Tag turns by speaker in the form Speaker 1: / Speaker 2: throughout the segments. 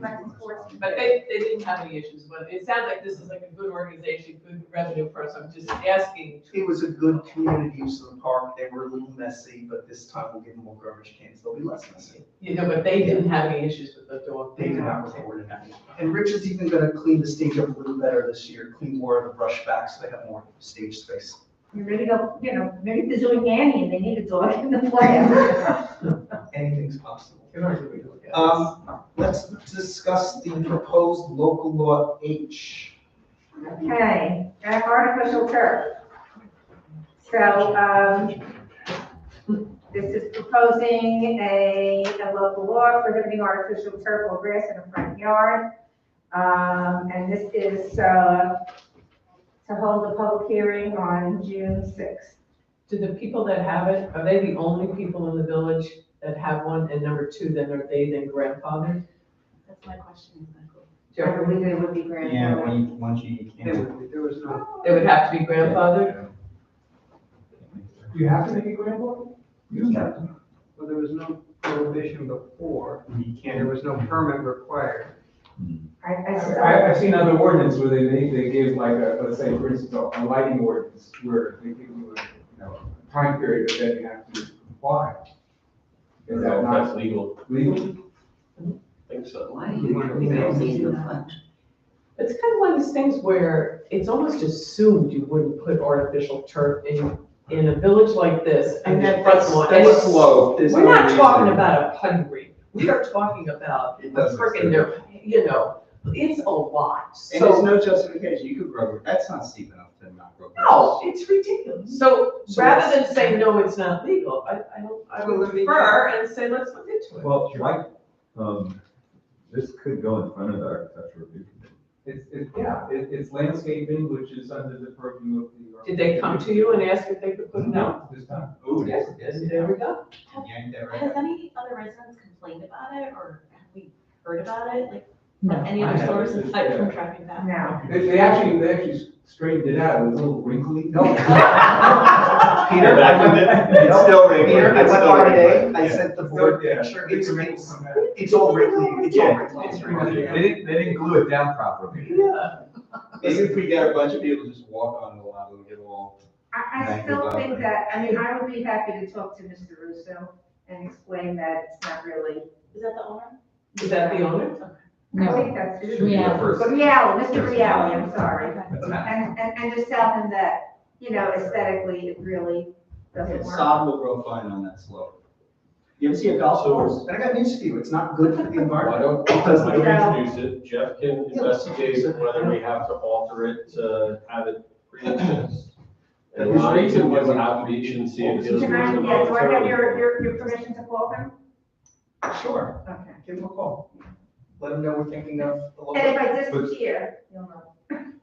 Speaker 1: back and forth.
Speaker 2: But they, they didn't have any issues, but it sounds like this is like a good organization, good revenue for us, I'm just asking.
Speaker 3: It was a good community use of the park. They were a little messy, but this time we'll give them more garbage cans. They'll be less messy.
Speaker 2: You know, but they didn't have any issues with the dog.
Speaker 3: They did not report it. And Rich is even gonna clean the stage up a little better this year, clean more of the brush back so they have more stage space.
Speaker 1: You ready to, go, you know, maybe they're doing Annie and they need a dog in the play.
Speaker 3: Anything's possible.
Speaker 2: It already we do it.
Speaker 3: Um, let's discuss the proposed local law H.
Speaker 1: Okay, that artificial turf. So, um, this is proposing a, a local law prohibiting artificial turf or grass in a front yard. Um, and this is, uh, to hold a public hearing on June sixth.
Speaker 2: Do the people that have it, are they the only people in the village that have one, and number two, then are they then grandfathered?
Speaker 4: That's my question exactly.
Speaker 1: I
Speaker 2: Jeremy,
Speaker 1: believe it would be granted.
Speaker 5: Yeah, when you, once you
Speaker 3: There
Speaker 5: can.
Speaker 3: was- there was no.
Speaker 2: They would have to be grandfathered?
Speaker 6: You have to make a grandfather?
Speaker 5: You can,
Speaker 6: Well, there was no prohibition before,
Speaker 5: you
Speaker 6: and there
Speaker 5: can.
Speaker 6: was no permit required.
Speaker 1: I, I
Speaker 7: I,
Speaker 1: saw,
Speaker 7: I've seen other ordinances where they, they, they give like a, let's say, for instance, a a lighting ordinance where they give you a, you know, a time period that then you have to comply. Is that not
Speaker 8: That's legal,
Speaker 7: legal?
Speaker 8: I think so.
Speaker 4: Why do you think they're using the fund?
Speaker 2: It's kind of one of these things where it's almost assumed you wouldn't put artificial turf in, in a village like this.
Speaker 3: And
Speaker 2: just
Speaker 3: that-
Speaker 2: front
Speaker 3: that's-
Speaker 2: lawn.
Speaker 3: that's slow. There's
Speaker 2: We're
Speaker 3: no
Speaker 2: not talking
Speaker 3: reason.
Speaker 2: about a putting green, we are talking about
Speaker 5: It doesn't
Speaker 2: freaking, their- you know, it's a lot,
Speaker 5: And there's
Speaker 2: so.
Speaker 5: no justification, you could grow, that's not steep enough to not grow.
Speaker 2: No, it's ridiculous. So
Speaker 3: So
Speaker 2: rather
Speaker 3: that's-
Speaker 2: than say, no, it's not legal, I, I don't, I would prefer and say, let's look into it.
Speaker 9: Well, why, um, this could go in front of the architectural review committee.
Speaker 7: It's, it's, yeah, it, it's landscaping, which is under the purview of the.
Speaker 2: Did they come to you and ask if they could put it out?
Speaker 7: No, this time.
Speaker 5: Oh, yes, yes,
Speaker 2: And
Speaker 5: yeah.
Speaker 2: There we go.
Speaker 5: Yank that right
Speaker 4: Has
Speaker 5: out.
Speaker 4: any other residents complained about it or have we heard about it? Like,
Speaker 2: No,
Speaker 4: from any
Speaker 7: I
Speaker 4: other
Speaker 7: haven't.
Speaker 4: sources aside from
Speaker 7: Yeah.
Speaker 4: traffic that?
Speaker 1: no.
Speaker 7: They, they actually, they actually straightened it out, it was a little wrinkly.
Speaker 3: Peter, I went,
Speaker 5: It's still regular.
Speaker 3: Peter, I
Speaker 5: It's
Speaker 3: went
Speaker 5: still
Speaker 3: by today,
Speaker 5: regular.
Speaker 3: I
Speaker 5: Yeah.
Speaker 3: sent the board
Speaker 7: Yeah,
Speaker 3: picture, it's, it's,
Speaker 7: come back.
Speaker 3: it's all wrinkly, it's all
Speaker 5: Yeah,
Speaker 3: wrinkly.
Speaker 5: it's regular. They didn't, they didn't glue it down properly.
Speaker 2: Yeah.
Speaker 5: Maybe if we got a bunch of people just walk on the lot, we'll get all.
Speaker 1: I, I
Speaker 5: Thank
Speaker 1: still
Speaker 5: you,
Speaker 1: think
Speaker 5: Barbara.
Speaker 1: that, I mean, I would be happy to talk to Mr. Russo and explain that it's not really.
Speaker 4: Is that the owner?
Speaker 2: Is that the owner?
Speaker 1: I think that's.
Speaker 9: Should be the
Speaker 4: Yeah.
Speaker 9: first.
Speaker 1: But Reale, Mr. Reale, I'm sorry.
Speaker 4: Okay.
Speaker 5: That's not-
Speaker 1: And, and, and just tell him that, you know, aesthetically, it really doesn't work.
Speaker 5: Sod will grow fine on that slope. You ever see a golf
Speaker 8: So-
Speaker 5: course?
Speaker 3: And I got news for you, it's not good for the
Speaker 8: Why
Speaker 3: environment.
Speaker 8: don't, why don't we introduce it, Jeff can investigate whether we have to alter it to have it pre-exist. And
Speaker 7: His
Speaker 8: Lonnie
Speaker 7: reason
Speaker 8: can give
Speaker 7: was-
Speaker 8: an application, see if it's.
Speaker 1: Can I, yeah, do I have your, your, your permission to call him?
Speaker 3: Sure,
Speaker 1: Okay.
Speaker 3: give them a call. Let them know we're thinking of the local.
Speaker 1: And if I disappear, you'll know.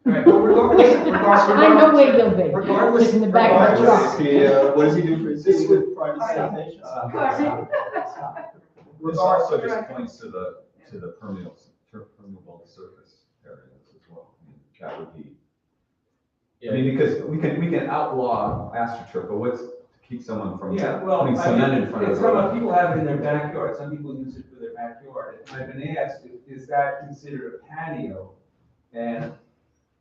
Speaker 3: Right, but regardless, regardless.
Speaker 10: I know where you'll be.
Speaker 3: Regardless-
Speaker 10: In the back of the truck.
Speaker 5: He, uh, what does he do for his?
Speaker 3: This would-
Speaker 5: privatization.
Speaker 9: This also just points to the, to the permeable, tur- permeable surface areas as well. I mean, That would be, I
Speaker 8: Yeah,
Speaker 9: mean, because we can, we can outlaw astroturf, but what's to keep someone from
Speaker 7: Yeah, well,
Speaker 9: putting
Speaker 7: I
Speaker 9: cement
Speaker 7: mean,
Speaker 9: in front of
Speaker 7: It's
Speaker 9: their-
Speaker 7: what people have it in their backyard, some people use it for their backyard, and I've been asked, i- is that considered a patio? And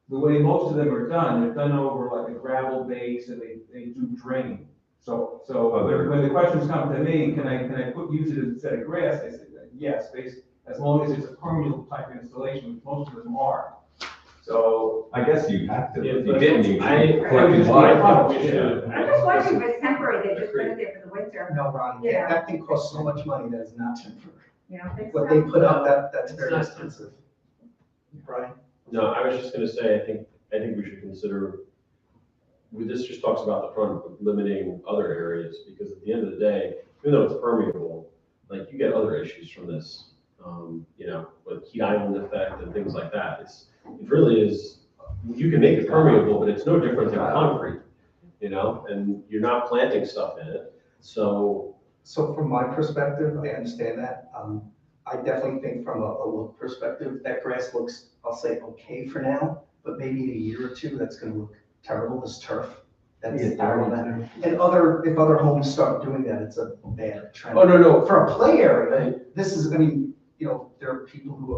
Speaker 7: the way most of them are done, they're done over like a gravel base, and they, they do drain. So, so
Speaker 9: Oh, they're-
Speaker 7: when- when the questions come to me, can I, can I put, use it instead of grass, I said, yes, based, as long as it's a permeable type installation, which most of them are. So,
Speaker 9: I guess you have to,
Speaker 8: Yeah,
Speaker 9: if you
Speaker 8: but
Speaker 9: didn't, you
Speaker 8: I-
Speaker 9: could
Speaker 7: I
Speaker 9: collect
Speaker 7: just-
Speaker 9: water.
Speaker 8: we should.
Speaker 1: I'm just wondering if it's temporary, they just put it there for the winter,
Speaker 3: No, Ronnie, that- that thing costs so much money that is not temporary.
Speaker 1: you know? it's
Speaker 3: What they
Speaker 1: not-
Speaker 3: put up, that, that's very
Speaker 2: It's not-
Speaker 3: expensive. Brian?
Speaker 8: No, I was just gonna say, I think, I think we should consider, we- this just talks about the front, but limiting other areas, because at the end of the day, even though it's permeable, like, you get other issues from this, um, you know, with heat island effect and things like that, it's, it really is, you can make it permeable, but it's no different than concrete, you know, and you're not planting stuff in it, so,
Speaker 3: So from my perspective, I understand that. Um, I definitely think from a, a look perspective, that grass looks, I'll say, okay for now, but maybe in a year or two, that's gonna look terrible, this turf. That's
Speaker 5: Yeah,
Speaker 3: terrible. And other, if other homes start doing that, it's a bad trend.
Speaker 8: oh, no, no,
Speaker 3: But for a play area, this is, I mean, you know, there are people who